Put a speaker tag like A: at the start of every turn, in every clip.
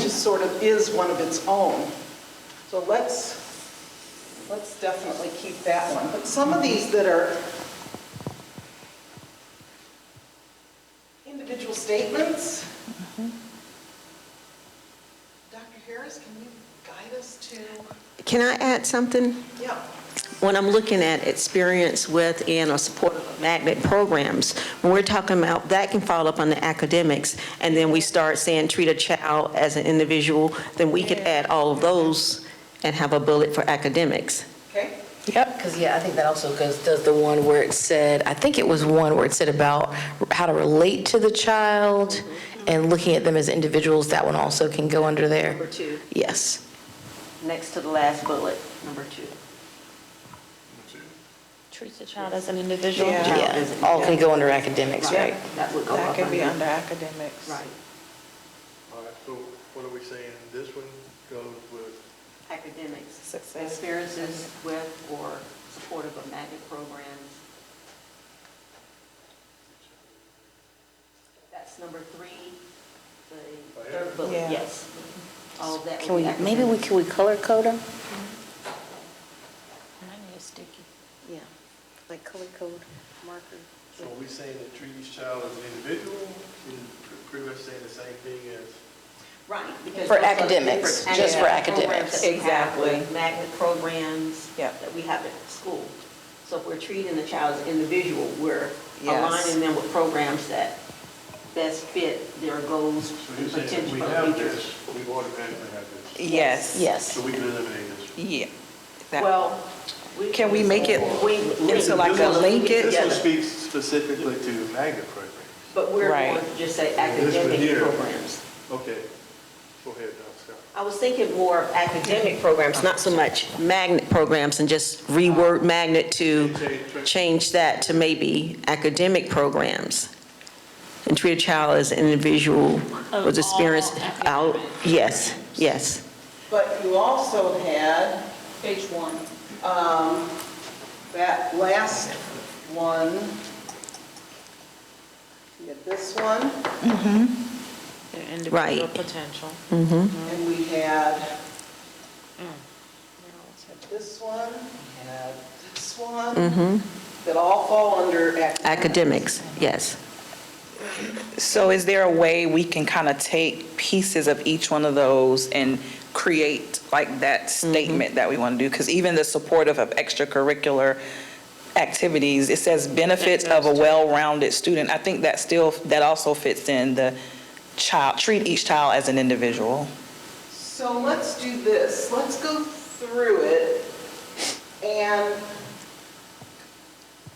A: sort of is one of its own. So let's, let's definitely keep that one. But some of these that are individual statements, Dr. Harris, can you guide us to,
B: Can I add something?
A: yeah,
B: When I'm looking at experience with and or support of magnet programs, when we're talking about, that can fall up under academics, and then we start saying treat a child as an individual, then we could add all of those and have a bullet for academics.
A: okay?
C: Yep, because yeah, I think that also goes, does the one where it said, I think it was one where it said about how to relate to the child
D: Mm-hmm.
C: and looking at them as individuals, that one also can go under there.
E: Number two,
C: Yes.
E: next to the last bullet, number two.
F: Treats the child as an individual.
A: Yeah.
E: Child
C: Yeah,
E: is-
C: all can go under academics, right?
E: That would go
A: That
E: up
A: could be
E: under.
A: under academics.
E: Right.
G: All right, so what are we saying? This one goes with,
E: Academics.
A: Success.
E: Experiences with or supportive of magnet programs. That's number three, the third bullet,
A: Yeah.
E: yes. All of that
C: Can
E: would
C: we,
E: be
C: maybe we,
E: academics.
C: can we color code them?
F: And I need a sticky.
E: Yeah, like color code marker.
G: so are we saying that treat each child as an individual? And pretty much saying the same thing as,
E: Right. because
C: For
E: those are
C: academics,
E: different
C: just for
E: programs
C: academics.
E: that we have, like
A: Exactly.
E: Magnet programs
A: Yep.
E: that we have at school. So if we're treating the child as individual, we're
A: Yes.
E: aligning them with programs that best fit their goals
G: so
E: and
G: you're saying if we
E: potential
G: have
E: of teachers.
G: this, we automatically have this?
A: Yes.
C: Yes.
G: So we can eliminate this?
A: Yeah. That-
E: Well.
A: Can we make it
E: we-
A: into like a
E: we-
A: link it?
G: This one
E: together.
G: speaks specifically to magnet programs.
E: But we're going
A: Right.
E: to just say
G: This one
E: academic
G: here.
E: programs.
G: Okay, go ahead, Dr. Scott.
E: I was thinking more of academic
B: Academic programs, not so much magnet programs, and just reword magnet to change that to maybe academic programs. And treat a child as an individual with experience. out. Yes, yes.
A: But you also had. Page one. Um, that last one. You had this one,
F: Their
B: Right.
F: potential.
A: and we had Mm. this one, we had this one. That all fall under academic.
B: Academics, yes.
H: So is there a way we can kind of take pieces of each one of those and create like that statement that we want to do? Because even the supportive of extracurricular activities, it says benefits of a well-rounded student. I think that still, that also fits in the child, treat each child as an individual.
A: So let's do this, let's go through it, and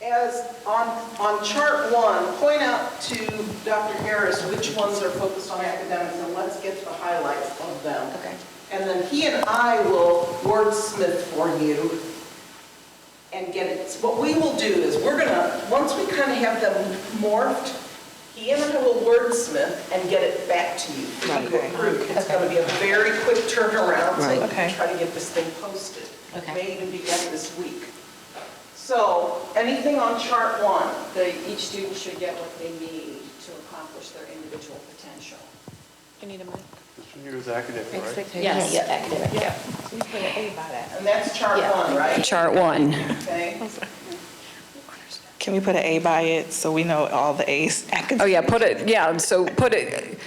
A: as, on, on chart one, point out to Dr. Harris which ones are focused on academics, and let's get to the highlights of them.
C: Okay.
A: And then he and I will wordsmith for you and get it. What we will do is, we're gonna, once we kind of have them morphed, he and I will wordsmith and get it back to you.
H: Okay.
A: It's gonna be a very quick turnaround, so we can
H: Okay.
A: try to get this thing posted.
C: Okay.
A: May even be done this week. So, anything on chart one?
I: that each student should get what they need to accomplish their individual potential.
F: You need a mic?
G: This one here is academic, right?
C: Yes. Yeah, academic, yeah.
A: And that's chart
C: Yeah.
A: one, right?
I: Chart one.
A: Okay.
H: Can we put an A by it so we know all the As?
I: Oh, yeah, put it, yeah, so put it,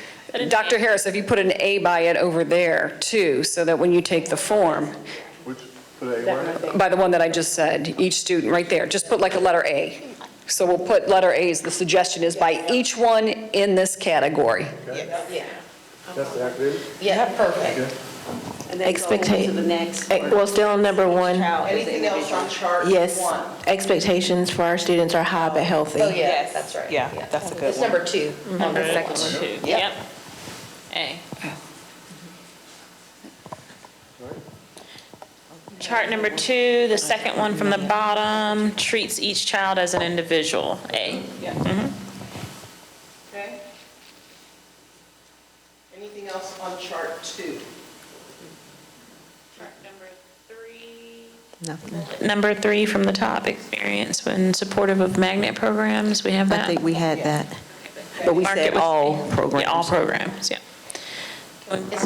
I: Dr. Harris, if you put an A by it over there too, so that when you take the form,
G: Which, put A word?
I: by the one that I just said, each student, right there, just put like a letter A. So we'll put letter As, the suggestion is by each one in this category.
G: That's the academic?
C: Yeah, perfect.
E: And then go on to the next.
D: Eh, Well, still on number one,
E: Child as an
A: Anything else
E: individual.
A: on chart one?
D: yes, expectations for our students are high but healthy.
C: Oh, yeah, that's right.
H: Yeah, that's a good
C: It's number two on the second one. Yep.
F: Yep. A. Chart number two, the second one from the bottom, treats each child as an individual, A. Mm-hmm.
A: Okay. Anything else on chart two?
F: Chart number three.
B: Nothing.
F: Number three from the top, experience when supportive of magnet programs, we have
B: I
F: that.
B: think we had that. But we
F: Mark it
B: said
F: with-
B: all
F: Yeah, all
B: programs.
F: programs, yeah.